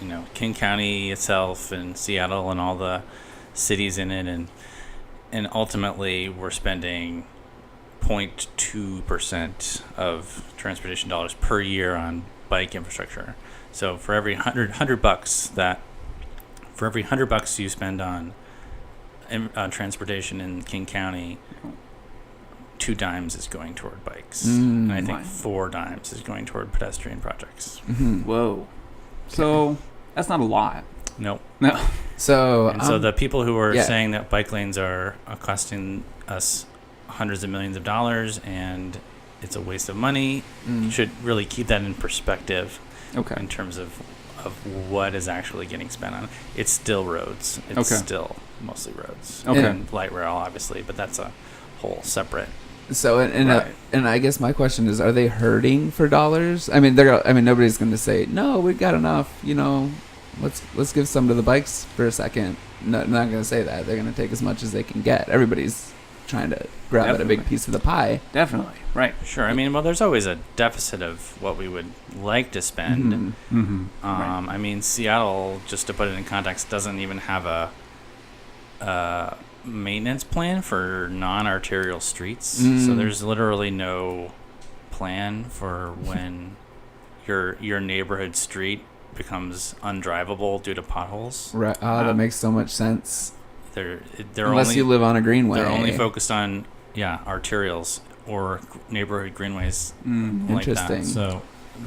you know King County itself and Seattle and all the cities in it, and and ultimately we're spending 0.2 percent of transportation dollars per year on bike infrastructure. So for every hundred hundred bucks that for every hundred bucks you spend on in- on transportation in King County, two dimes is going toward bikes, Mm. and I think Wow. four dimes is going toward pedestrian projects. Mm-hmm. Mhm. Whoa. So that's not a lot. Nope. So, And so um, the people who are yeah. saying that bike lanes are uh, costing us hundreds of millions of dollars and it's a waste of money mm, should really keep that in perspective Okay. in terms of of what is actually getting spent on. It's still roads. It's Okay. still mostly roads. Okay. And light rail, obviously, but that's a whole separate. so and and, uh, Right. and I guess my question is, are they hurting for dollars? I mean, they're. I mean, nobody's going to say no. We've got enough. You know, let's let's give some to the bikes for a second. No, not going to say that. They're going to take as much as they can get. Everybody's trying to grab at a big Definitely. piece of the pie. Definitely. Right. Sure. I mean, well, there's always a deficit of what we would like to spend. Mhm. Mm-hmm. Um, I mean, Seattle, just to put it in context, doesn't even have a, uh maintenance plan for non-arterial streets. So Mm. there's literally no plan for when your your neighborhood street becomes undrivable due to potholes. Right. Ah, Um, that makes so much sense. They're they're Unless only you live on a greenway. they're only focused on yeah arterials or g- neighborhood greenways Mm. like that. Interesting. So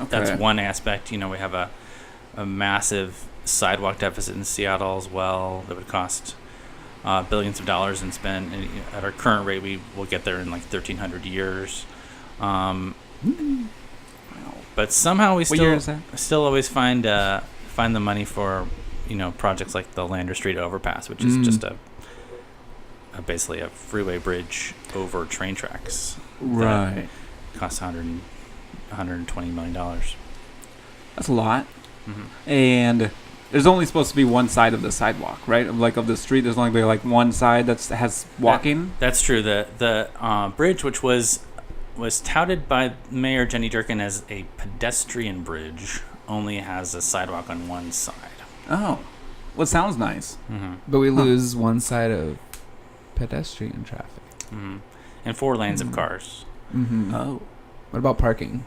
that's one aspect. You know, we have a, a massive sidewalk deficit in Seattle as well that would cost uh, billions of dollars and spend. And you know, at our current rate, we will get there in like 1,300 years. Um, but somehow we What year still is that? still always find uh, find the money for you know projects like the Lander Street overpass, which is Mm. just a, a basically a freeway bridge over train tracks. Right. Costs 100, 120 million dollars. That's a lot. hmm And there's only supposed to be one side of the sidewalk, right? Of Like of the street, there's only gonna be like one side that's has walking. That's true. The the uh, bridge, which was was touted by Mayor Jenny Durkin as a pedestrian bridge, only has a sidewalk on one side. Oh, well, sounds nice. hmm But we Huh. lose one side of pedestrian traffic. hmm And four lanes Mhm. of cars. hmm Uh, Oh, What about parking?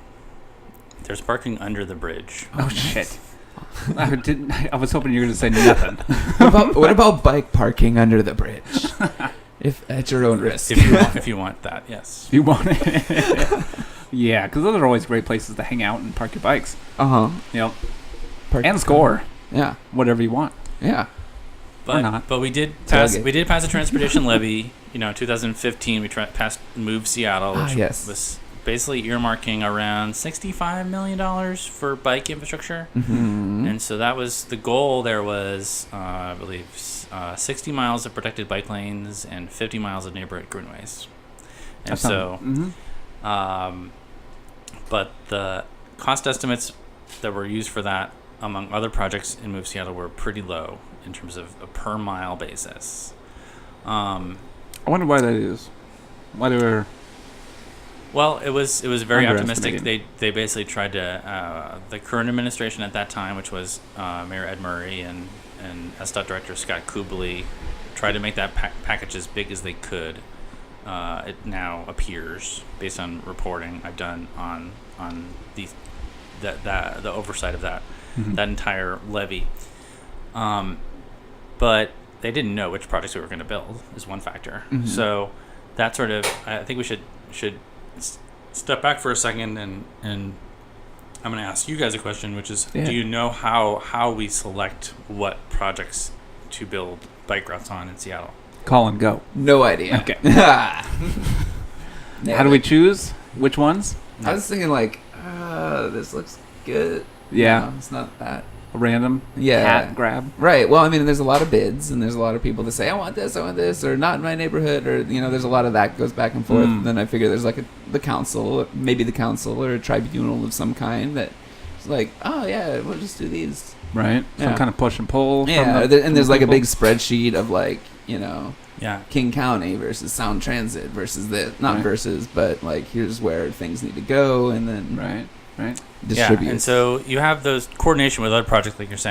There's parking under the bridge. oh shit. I didn't. I was hoping you were gonna say nothing. what, about, what about bike parking under the bridge? if at your own risk. If you want, if you want that, yes. you want it? yeah, because those are always great places to hang out and park your bikes Uh huh. Yep. and score Yeah. whatever you want. Yeah. But not. but we did pass Tailgate. we did pass a transportation levy. You know, 2015 we tra- passed Move Seattle, Ah, which yes. was basically earmarking around 65 million dollars for bike infrastructure. Hmm? Mm-hmm. Mm. And so that was the goal. There was, uh, I believe, s- uh, 60 miles of protected bike lanes and 50 miles of neighborhood greenways. And That's so, not- Mhm. um, but the cost estimates that were used for that, among other projects in Move Seattle, were pretty low in terms of a per mile basis. Um, I wonder why that is. Why they were Well, it was it was very optimistic. They Underestimating. they basically tried to uh, the current administration at that time, which was uh, Mayor Ed Murray and and SDOT Director Scott Kubley, tried to make that pa- package as big as they could. Uh, it now appears, based on reporting I've done on on the that that the oversight of that that entire levy. Um, but they didn't know which projects we were going to build is one factor. Mhm. So that sort of I think we should should s- step back for a second and and I'm going to ask you guys a question, which is Yeah. do you know how how we select what projects to build bike routes on in Seattle? call and go. No idea. Okay. Yeah, How do we choose which ones? I was thinking like, uh, this looks good. Yeah, No, it's not that. a random Yeah. cat grab. Right. Well, I mean, there's a lot of bids, and there's a lot of people that say, "I want this, I want this," or "Not in my neighborhood," or you know, there's a lot of that goes back and forth. Mm. Then I figure there's like a, the council, maybe the council or a tribunal of some kind that is like, "Oh yeah, we'll just do these." Right. Some Yeah. kind of push and pull. from Yeah, the- there- and there's from like a people. big spreadsheet of like you know Yeah. King County versus Sound Transit versus this, not Right. versus, but like here's where things need to go, and then Right. Right. distribute. Yeah, and so you have those coordination with other projects, like you're saying.